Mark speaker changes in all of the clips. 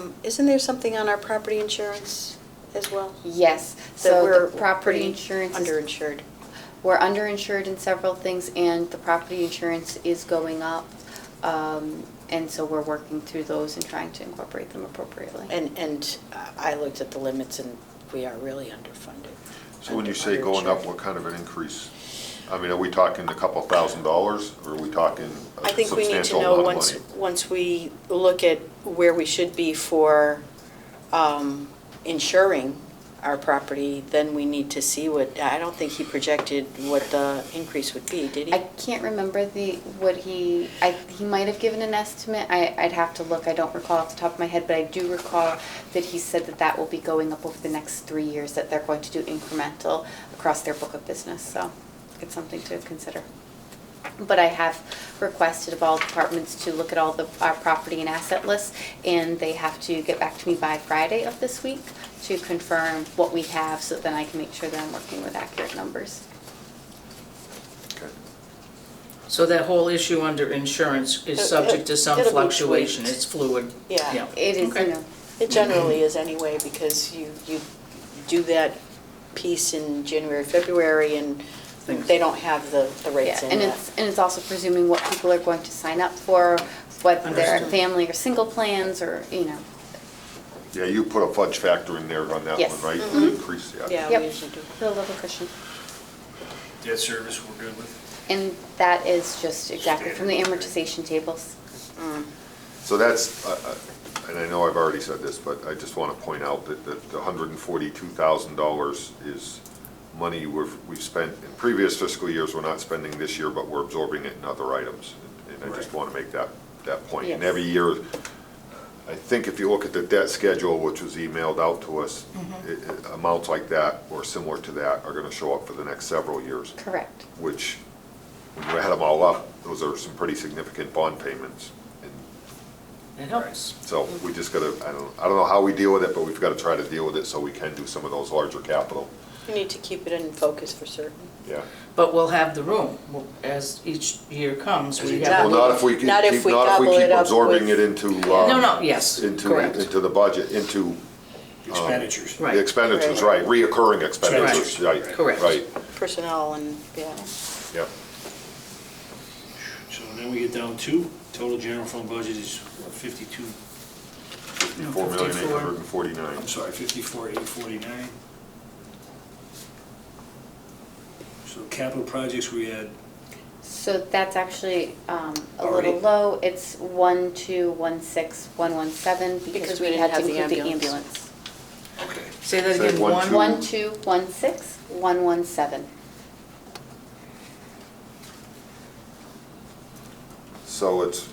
Speaker 1: um, isn't there something on our property insurance as well?
Speaker 2: Yes,
Speaker 1: That
Speaker 2: so
Speaker 1: we're
Speaker 2: the property
Speaker 1: pretty
Speaker 2: insurance, is-
Speaker 1: Underinsured.
Speaker 2: we're underinsured in several things, and the property insurance is going up. um, And so we're working through those and trying to incorporate them appropriately.
Speaker 1: And, and uh, I looked at the limits and we are really underfunded.
Speaker 3: So when you say going up, what
Speaker 1: Underinsured.
Speaker 3: kind of an increase? I mean, are we talking a couple thousand dollars, or are we talking a
Speaker 1: I think we need to
Speaker 3: substantial
Speaker 1: know
Speaker 3: amount
Speaker 1: once,
Speaker 3: of money?
Speaker 1: once we look at where we should be for um, insuring our property, then we need to see what, I don't think he projected what the increase would be, did he?
Speaker 2: I can't remember the, what he, I, he might have given an estimate, I, I'd have to look, I don't recall off the top of my head, but I do recall that he said that that will be going up over the next three years, that they're going to do incremental across their book of business, so it's something to consider. But I have requested of all departments to look at all the, our property and asset lists, and they have to get back to me by Friday of this week to confirm what we have, so then I can make sure that I'm working with accurate numbers.
Speaker 3: Okay.
Speaker 4: So that whole issue under insurance is
Speaker 1: It-
Speaker 4: subject
Speaker 1: it-
Speaker 4: to some
Speaker 1: it'll be
Speaker 4: fluctuation,
Speaker 1: tweaked.
Speaker 4: it's fluid.
Speaker 1: Yeah.
Speaker 2: It is, you
Speaker 4: Okay.
Speaker 2: know,
Speaker 1: It generally is anyway, because you, you do that piece in January, February, and they don't have the, the rates
Speaker 2: Yeah,
Speaker 1: in
Speaker 2: and
Speaker 1: yet.
Speaker 2: it's, and it's also presuming what people are going to sign up for, whether they're
Speaker 4: Understood.
Speaker 2: family or single plans, or, you know.
Speaker 3: Yeah, you put a fudge factor in there on that
Speaker 2: Yes.
Speaker 3: one, right? The Increase, yeah.
Speaker 1: Mm-hmm. Yeah,
Speaker 2: Yep.
Speaker 1: we usually do.
Speaker 2: The level cushion.
Speaker 5: Debt service, we're good with?
Speaker 2: And that is just exactly from the amortization tables.
Speaker 3: So that's, uh, uh, and I know I've already said this, but I just want to point out that that the $142,000 is money we've, we've spent in previous fiscal years, we're not spending this year, but we're absorbing it in other items. And and I just
Speaker 5: Right.
Speaker 3: want to make that, that point. And
Speaker 1: Yes.
Speaker 3: every year, I think if you look at the debt schedule, which was emailed out to us, it- it- amounts like that or similar to that are going to show up for the next several years,
Speaker 2: Correct.
Speaker 3: which, when you add them all up, those are some pretty significant bond payments. And
Speaker 4: It helps.
Speaker 3: so we just gotta, I don't, I don't know how we deal with it, but we've gotta try to deal with it so we can do some of those larger capital.
Speaker 1: You need to keep it in focus for certain.
Speaker 3: Yeah.
Speaker 4: But we'll have the room, We'll- as each year comes, we
Speaker 3: Well,
Speaker 4: have.
Speaker 1: Exactly.
Speaker 3: not if we keep,
Speaker 1: Not
Speaker 3: not
Speaker 1: if
Speaker 3: if
Speaker 1: we
Speaker 3: we
Speaker 1: double it
Speaker 3: keep
Speaker 1: up
Speaker 3: absorbing
Speaker 1: with-
Speaker 3: it into, um.
Speaker 4: No, no, yes,
Speaker 3: Into,
Speaker 4: correct.
Speaker 3: into the budget, into
Speaker 5: Expenditures.
Speaker 4: Right.
Speaker 3: the expenditures, right, reoccurring expenditures,
Speaker 5: Right.
Speaker 3: right,
Speaker 4: Correct.
Speaker 3: right,
Speaker 1: Personnel and, yeah.
Speaker 3: yeah.
Speaker 5: So then we get down to, total general fund budget is what, 52,
Speaker 4: No,
Speaker 3: Four million eight hundred and
Speaker 5: I'm
Speaker 3: forty-nine.
Speaker 5: sorry, 54,849. So capital projects, we had,
Speaker 2: So that's actually um, a
Speaker 5: Already?
Speaker 2: little low. It's one, two, one, six, one, one, seven, because we
Speaker 1: didn't
Speaker 2: had
Speaker 1: have
Speaker 2: to
Speaker 1: the
Speaker 2: include the
Speaker 1: ambulance.
Speaker 2: ambulance.
Speaker 5: okay,
Speaker 4: Say that
Speaker 3: Say
Speaker 4: again,
Speaker 3: one,
Speaker 4: one,
Speaker 3: two.
Speaker 2: One, two, one, six, one, one, seven.
Speaker 3: So it's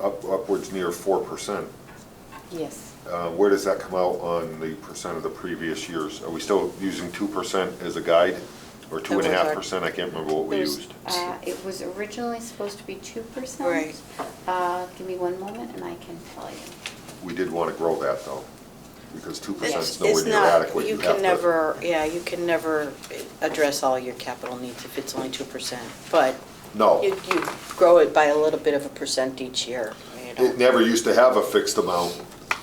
Speaker 3: up, upwards near four percent.
Speaker 2: Yes.
Speaker 3: Uh, where does that come out on the percent of the previous years? Are we still using two percent as a guide? Or two and a
Speaker 1: That was
Speaker 3: half
Speaker 1: our-
Speaker 3: percent? I can't remember what we
Speaker 1: There's-
Speaker 3: used.
Speaker 2: Uh, It was originally supposed to be 2%.
Speaker 1: Right.
Speaker 2: Uh, Give me one moment and I can tell you.
Speaker 3: We did want to grow that, though, because two percent
Speaker 1: It's
Speaker 3: is
Speaker 1: it's
Speaker 3: nowhere near
Speaker 1: not-
Speaker 3: adequate.
Speaker 1: You
Speaker 3: have
Speaker 1: can
Speaker 3: to-
Speaker 1: never, yeah, you can never address all your capital needs if it's only 2%. But you
Speaker 3: No,
Speaker 1: you grow it by a little bit of a percent each year. you know.
Speaker 3: it never used to have a fixed amount,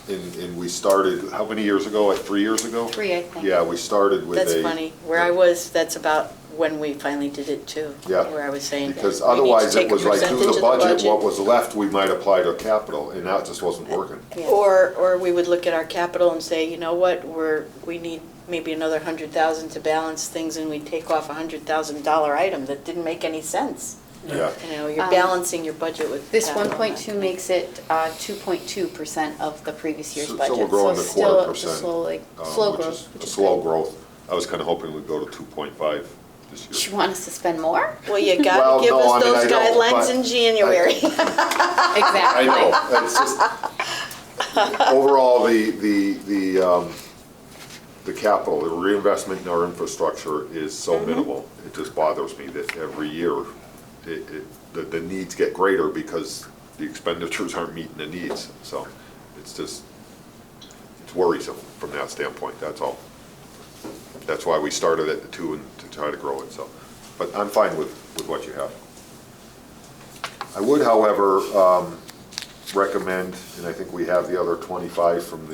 Speaker 3: and, and we started, how many years ago, like three years ago?
Speaker 2: Three, I think.
Speaker 3: Yeah, we started with a.
Speaker 1: That's funny. Where I was, that's about when we finally did it too.
Speaker 3: Yeah.
Speaker 1: Where I was saying.
Speaker 3: Because
Speaker 1: we need to
Speaker 3: otherwise,
Speaker 1: take
Speaker 3: it
Speaker 1: a
Speaker 3: was like, do
Speaker 1: percentage of
Speaker 3: the budget, what was left, we might apply to capital, and that just wasn't working.
Speaker 2: Yeah.
Speaker 1: Or, or we would look at our capital and say, you know what, we're, we need maybe another hundred thousand to balance things and we take off a hundred thousand dollar item that didn't make any sense.
Speaker 5: Uh,
Speaker 3: Yeah,
Speaker 1: You know, you're
Speaker 2: Um,
Speaker 1: balancing your budget with.
Speaker 2: This
Speaker 1: capital, not-
Speaker 2: 1.2 makes it uh, 2.2% of the previous year's
Speaker 3: So- so
Speaker 2: budget.
Speaker 3: we're growing
Speaker 2: it's
Speaker 3: a quarter
Speaker 2: still a
Speaker 3: percent,
Speaker 2: slow, like,
Speaker 3: um,
Speaker 2: Slow
Speaker 3: which is
Speaker 2: growth. which
Speaker 3: a
Speaker 2: is
Speaker 3: Slow
Speaker 2: good.
Speaker 3: growth. I was kind of hoping we'd go to two point five this year.
Speaker 2: Do you want us to spend more?
Speaker 1: Well, you
Speaker 3: Well,
Speaker 1: gotta give
Speaker 3: no, I
Speaker 1: us
Speaker 3: mean, I
Speaker 1: those
Speaker 3: don't,
Speaker 1: guidelines
Speaker 3: but
Speaker 1: in January.
Speaker 3: I
Speaker 2: Exactly.
Speaker 3: know, it's just, overall, the, the, the, um, the capital, the reinvestment in our infrastructure is so minimal. It just bothers me that every year, it, it, the, the needs get greater because the expenditures aren't meeting the needs. So it's just, it's worrisome from that standpoint, that's all. That's why we started at the two and to try to grow it, so. But I'm fine with, with what you have. uh, I would, however, um, recommend, and I think we have the other 25 from the